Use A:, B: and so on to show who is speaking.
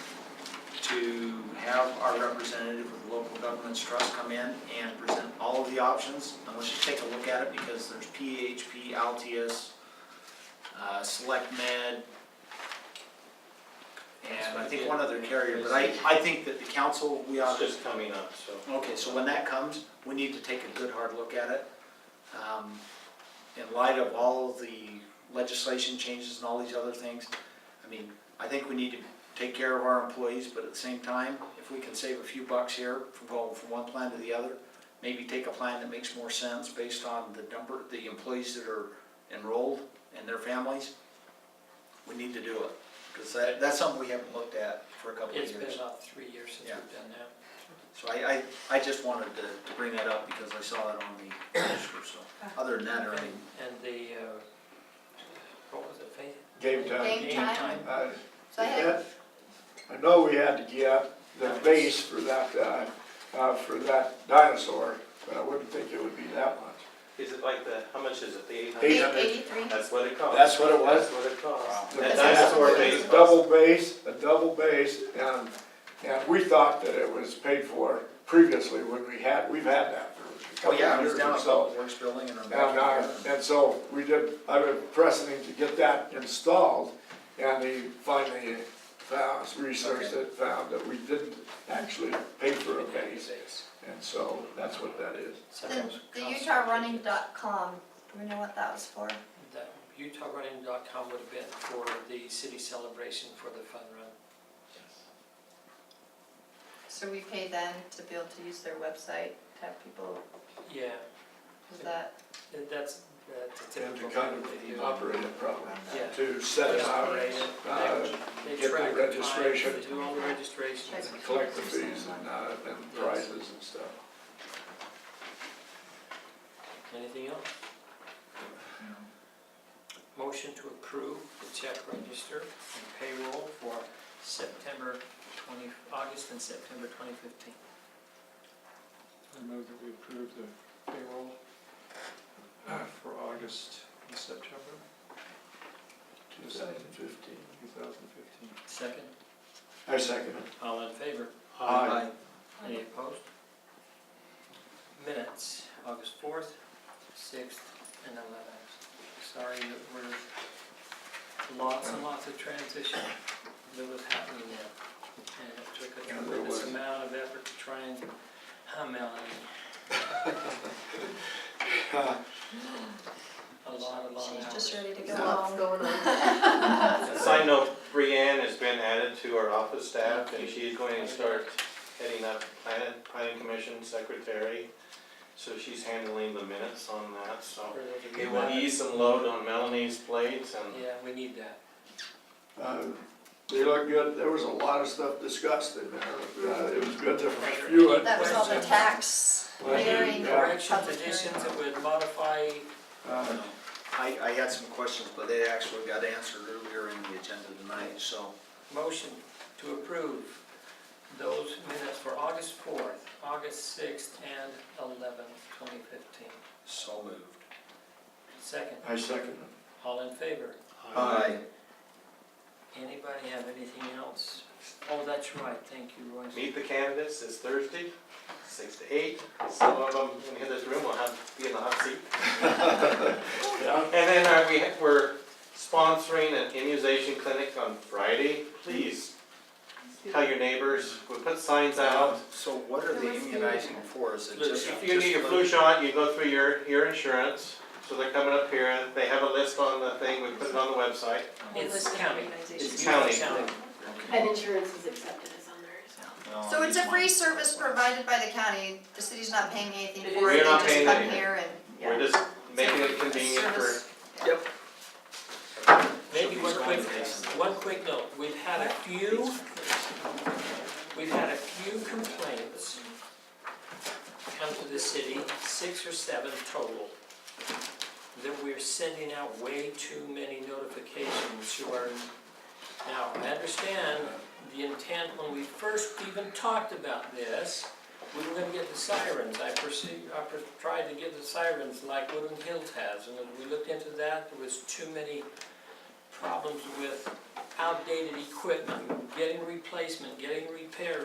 A: to have our representative with the Local Governments Trust come in and present all of the options. And let's just take a look at it because there's PHP, Altius, uh, Select Med, and I think one other carrier, but I, I think that the council, we ought
B: It's
A: to
B: just coming up, so.
A: Okay, so when that comes, we need to take a good hard look at it. Um, In light of all of the legislation changes and all these other things, I mean, I think we need to take care of our employees, but at the same time, if we can save a few bucks here from going from one plan to the other, maybe take a plan that makes more sense based on the number, the employees that are enrolled and their families, we need to do it. Because that, that's something we haven't looked at for a couple of years.
C: It's been about three years since
A: Yeah.
C: we've done that.
A: So I, I, I just wanted to, to bring that up because I saw it on the register, so, other than that, or any,
C: And and the, uh, what was it, Faith?
D: Game time.
E: Game time?
D: Uh,
E: So I had,
D: I know we had to get the base for that, uh, uh, for that dinosaur, but I wouldn't think it would be that much.
B: Is it like the, how much is it, the eight
D: Eight
B: hundred?
D: hundred.
E: eighty-three,
B: That's what it costs.
D: That's what it was?
B: That's what it costs.
D: The
B: That dinosaur
E: That's-
B: base cost.
D: Double base, a double base, and, and we thought that it was paid for previously when we had, we've had that for
A: oh
D: a
A: yeah,
D: couple
A: it was
D: years
A: down
D: or
A: at
D: so.
A: Public Works Building and I'm
D: And,
A: back
D: uh,
A: here.
D: and so we did, I was pressing him to get that installed, and he finally found, researched it, found that we didn't actually pay for a base. And so that's what that is.
E: the, the UtahRunning.com, you know what that was for?
C: That UtahRunning.com would have been for the city celebration for the fun run.
E: So we pay them to be able to use their website, to have people,
C: Yeah,
E: is that,
C: and that's, that's a
D: And to
C: typical
D: kind
C: thing they
D: of
C: do.
D: operate it properly,
C: Yeah.
D: to set it out, uh,
C: They
D: get the
C: track
D: registration.
C: times, They do all the registrations.
D: and collect the fees and, uh, and prizes and stuff.
C: Anything else? Motion to approve the check register and payroll for September 20, August and September 2015.
F: I move that we approve the payroll uh, for August and September
D: 2015.
F: 2015.
C: Second,
D: I second it.
C: all in favor?
A: Uh,
D: Aye.
C: Any opposed? Minutes, August 4th, 6th, and 11th. Sorry that we're lots and lots of transition that was happening there. And it took a
D: Yeah, there
C: tremendous
D: was.
C: amount of effort to try and, huh, Melanie? A lot, a lot of
E: she's
C: hours.
E: just ready to go home.
G: going on?
B: A Side note, Brianne has been added to our office staff, and she's going to start heading up planning, planning commission secretary. So she's handling the minutes on that, so
C: For those of you
B: it will
C: that-
B: ease some load on Melanie's plate and
C: Yeah, we need that.
D: Uh, They look good. There was a lot of stuff discussed in there. Uh, It was good to review it.
E: That was all the tax hearing.
D: Yeah.
C: Corrections,
E: Public hearing.
C: additions that would modify,
D: Uh,
A: I, I had some questions, but they actually got answered earlier in the agenda tonight, so.
C: motion to approve those minutes for August 4th, August 6th, and 11th, 2015.
A: So moved.
C: Second,
D: I second
C: all in favor?
D: it.
A: Aye.
C: Anybody have anything else? Oh, that's right, thank you, Royce.
B: meet the candidates this Thursday, six to eight. Some of them in this room will have, be in the hot seat.
D: Yeah.
B: And then uh, we, we're sponsoring an immunization clinic on Friday. Please tell your neighbors, we put signs out.
A: So what are they immunizing for? Is it just?
B: If you need your flu shot, you go through your, your insurance. So they're coming up here, and they have a list on the thing, we put it on the website.
C: It's
E: Listen to
C: county.
E: organizations.
B: It's county.
G: And insurance is accepted as on there, so.
A: No,
E: So it's a
A: just
E: free
A: one.
E: service provided by the county, the city's not paying anything
G: It
E: for it,
B: is.
E: they
B: We're not
E: just
B: paying
E: come
B: anything.
E: here and,
B: We're
E: yeah.
B: just making it convenient for,
E: Service.
C: Maybe one quick, one quick note, we've had a few, we've had a few complaints come to the city, six or seven total, that we're sending out way too many notifications to our, now, I understand the intent when we first even talked about this, we were gonna get the sirens, I pursued, I per- tried to get the sirens like Woodland Hills has, and as we looked into that, there was too many problems with outdated equipment, getting replacement, getting repairs.